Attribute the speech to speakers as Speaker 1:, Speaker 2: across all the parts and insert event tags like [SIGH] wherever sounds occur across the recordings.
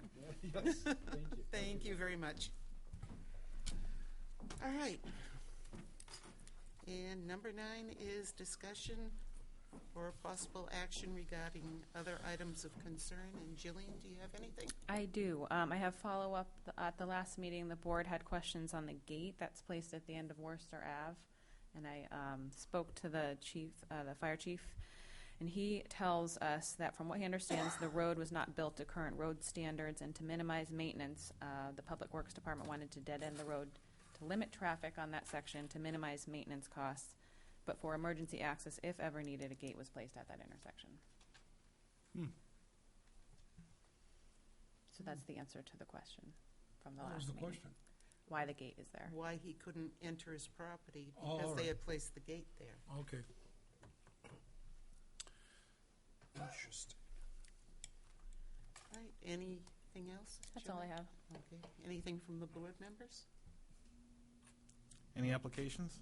Speaker 1: [LAUGHS] Yes, thank you.
Speaker 2: Thank you very much. All right. And number nine is discussion or possible action regarding other items of concern. And Jillian, do you have anything?
Speaker 3: I do. Um, I have follow-up. Th- At the last meeting, the board had questions on the gate that's placed at the end of Worcester Ave. And I um, spoke to the chief, uh, the fire chief, and he tells us that from what he understands, the road was not built to current road standards. And to minimize maintenance, uh, the Public Works Department wanted to dead-end the road to limit traffic on that section to minimize maintenance costs. But for emergency access, if ever needed, a gate was placed at that intersection.
Speaker 4: Hmm.
Speaker 3: So that's the answer to the question from the
Speaker 4: What
Speaker 3: last
Speaker 4: was the
Speaker 3: meeting.
Speaker 4: question?
Speaker 3: Why the gate is there.
Speaker 2: Why he couldn't enter his property
Speaker 4: Oh, all
Speaker 2: because they
Speaker 4: right.
Speaker 2: had placed the gate there.
Speaker 4: Okay.
Speaker 1: Interesting.
Speaker 2: All right, anything else?
Speaker 3: That's all I
Speaker 2: Jillian?
Speaker 3: have.
Speaker 2: Okay, anything from the board members?
Speaker 5: Any applications?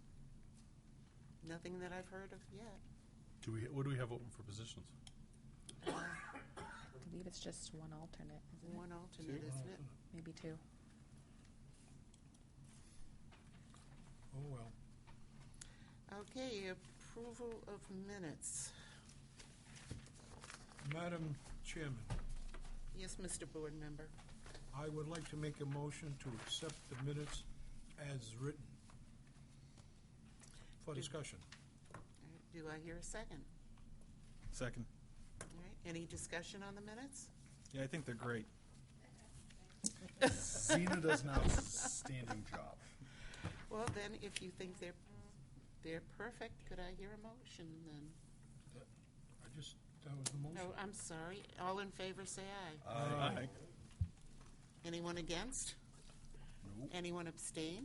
Speaker 2: Nothing that I've heard of yet.
Speaker 6: Do we, what do we have open for positions?
Speaker 3: I believe it's just one alternate, isn't it?
Speaker 2: One alternate, isn't it?
Speaker 3: Maybe two.
Speaker 4: Oh, well.
Speaker 2: Okay, approval of minutes.
Speaker 4: Madam Chairman,
Speaker 2: Yes, Mr. Board Member.
Speaker 4: I would like to make a motion to accept the minutes as written for discussion.
Speaker 2: All right, Do I hear a second?
Speaker 5: Second.
Speaker 2: All right, any discussion on the minutes?
Speaker 5: Yeah, I think they're great.
Speaker 6: Zena does
Speaker 2: [LAUGHS]
Speaker 6: an outstanding job.
Speaker 2: Well, then, if you think they're, they're perfect, could I hear a motion then?
Speaker 4: I just, that was the
Speaker 2: Oh,
Speaker 4: motion.
Speaker 2: I'm sorry. All in favor, say aye.
Speaker 5: Aye.
Speaker 2: Anyone against?
Speaker 6: No.
Speaker 2: Anyone abstain?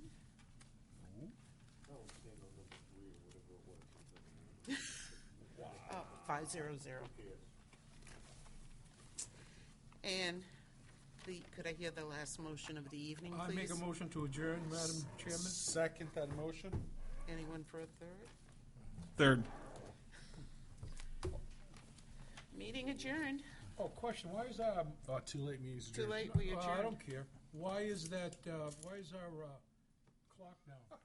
Speaker 2: Oh, five zero zero. And the, could I hear the last motion of the evening,
Speaker 4: I make a
Speaker 2: please?
Speaker 4: motion to adjourn, Madam Chairman.
Speaker 6: Second that motion?
Speaker 2: Anyone for a third?
Speaker 5: Third.
Speaker 2: Meeting adjourned.
Speaker 4: Oh, question, why is our, Oh,
Speaker 6: Oh, too late, means
Speaker 2: Too
Speaker 6: adjourned.
Speaker 2: late, we
Speaker 4: Well, I
Speaker 2: adjourned.
Speaker 4: don't care. Why is that, uh, why is our uh, clock now?